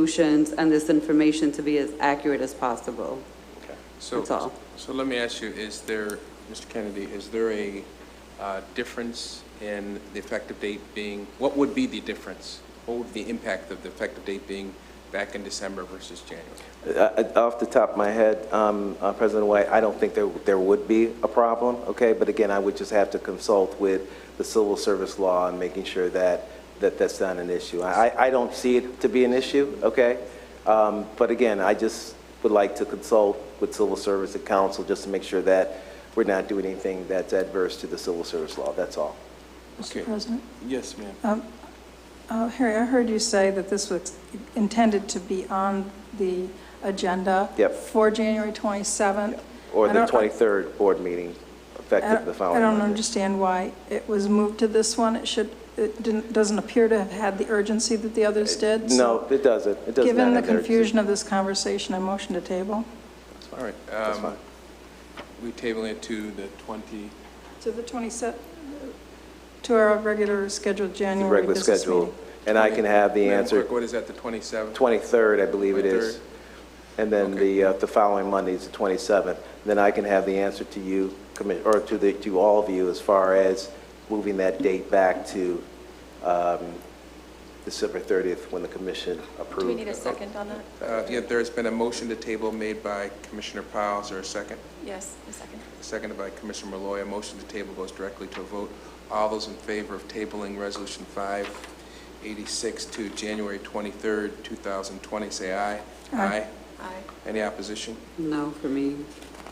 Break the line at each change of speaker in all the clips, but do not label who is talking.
solutions and this information to be as accurate as possible.
So-
That's all.
So let me ask you, is there, Mr. Kennedy, is there a uh, difference in the effective date being, what would be the difference? What would be the impact of the effective date being back in December versus January?
Uh, Off the top of my head, um, uh, President White, I don't think there there would be a problem, okay? But again, I would just have to consult with the civil service law and making sure that that that's not an issue. I I- I don't see it to be an issue, okay? Um, But again, I just would like to consult with civil service and council just to make sure that we're not doing anything that's adverse to the civil service law, that's all.
Okay.
Mr. President?
Yes, ma'am.
Um,
Uh, Harry, I heard you say that this was intended to be on the agenda.
Yep.
For January 27th.
Or
I
the
don't-
23rd board meeting
I
effective the following
I don't
Monday.
understand why it was moved to this one. It should, it didn't, doesn't appear to have had the urgency that the others did. so
Uh, No, it doesn't, it does not.
Given the
have urgency.
confusion of this conversation, I motion to table.
All right.
That's
um,
fine.
We tabling it to the 20,
To the 27th, to our regular scheduled January
regular
business
schedule,
meeting.
and I can have the
Madam
answer
Clerk, what is that, the 27th?
23rd, I believe it is.
23rd.
And then
Okay.
the, uh, the following Monday is the 27th. Then I can have the answer to you, commi- or to the, to all of you as far as moving that date back to um, December 30th when the commission approved.
Do we need a second on that?
Uh, Yeah, there's been a motion to table made by Commissioner Piles, or a second?
Yes, a second.
Seconded by Commissioner Malloy. A motion to table goes directly to a vote. All those in favor of tabling Resolution 586 to January 23rd, 2020, say aye. Aye.
Aye.
Any opposition?
No, for me.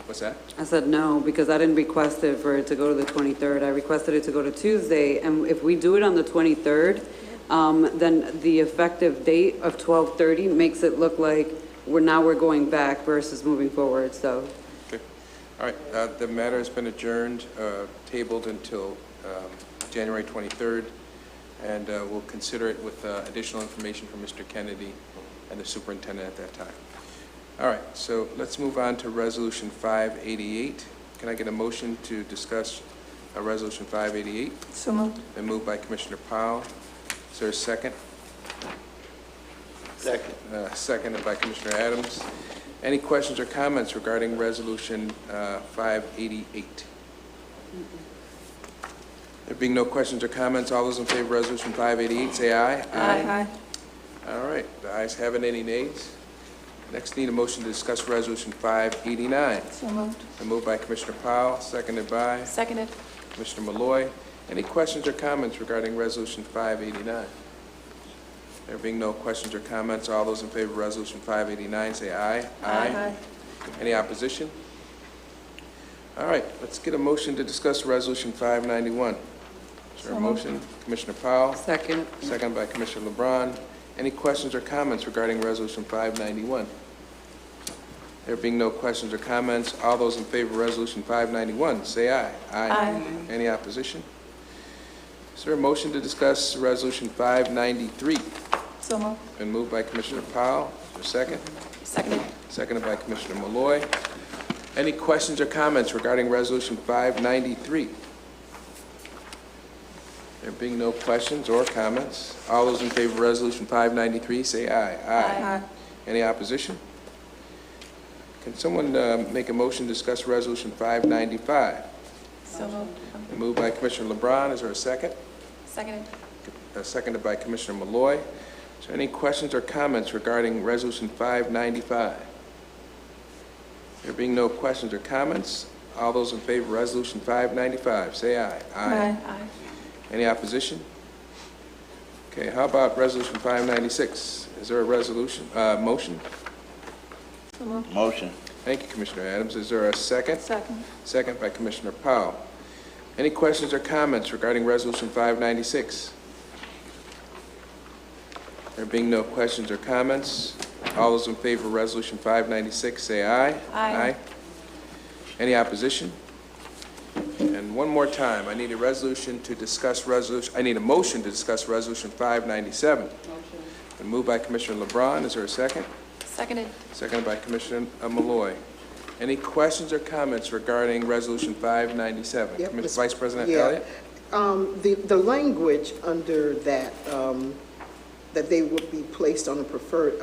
What's that?
I said no, because I didn't request it for it to go to the 23rd. I requested it to go to Tuesday, and if we do it on the 23rd, um, then the effective date of 12:30 makes it look like we're, now we're going back versus moving forward, so.
Okay. All right, uh, the matter has been adjourned, uh, tabled until um, January 23rd, and uh, we'll consider it with uh, additional information from Mr. Kennedy and the superintendent at that time. All right, so let's move on to Resolution 588. Can I get a motion to discuss uh, Resolution 588?
So moved.
Been moved by Commissioner Powell. Is there a second? Second. Seconded by Commissioner Adams. Any questions or comments regarding Resolution uh, 588? There being no questions or comments, all those in favor of Resolution 588, say aye.
Aye.
All right, the ayes have it, any nays? Next, need a motion to discuss Resolution 589.
So moved.
Been moved by Commissioner Powell, seconded by?
Seconded.
Commissioner Malloy. Any questions or comments regarding Resolution 589? There being no questions or comments, all those in favor of Resolution 589, say aye.
Aye.
Any opposition? All right, let's get a motion to discuss Resolution 591. Is there a
So moved.
motion? Commissioner Powell,
Second.
second by Commissioner LeBron. Any questions or comments regarding Resolution 591? There being no questions or comments, all those in favor of Resolution 591, say aye.
Aye.
Any opposition? Is there a motion to discuss Resolution 593?
So moved.
Been moved by Commissioner Powell, Is there a second,
Seconded.
seconded by Commissioner Malloy. Any questions or comments regarding Resolution 593? There being no questions or comments, all those in favor of Resolution 593, say aye.
Aye.
Any opposition? Can someone uh, make a motion to discuss Resolution 595?
So moved.
Moved by Commissioner LeBron, is there a second?
Seconded.
Uh, Seconded by Commissioner Malloy. Is there any questions or comments regarding Resolution 595? There being no questions or comments, all those in favor of Resolution 595, say aye.
Aye.
Any opposition? Okay, how about Resolution 596? Is there a resolution, uh, motion?
So moved.
Motion.
Thank you, Commissioner Adams. Is there a second?
Second.
Second by Commissioner Powell. Any questions or comments regarding Resolution 596? There being no questions or comments, all those in favor of Resolution 596, say aye.
Aye.
Any opposition? And one more time, I need a resolution to discuss resolution, I need a motion to discuss Resolution 597. Motion. Been moved by Commissioner LeBron. Is there a second?
Seconded.
Seconded by Commissioner uh, Malloy. Any questions or comments regarding Resolution 597?
Yep,
Commis-
Ms.
Vice President
Yeah.
Elliott?
Um, The, the language under that, um, that they would be placed on a preferred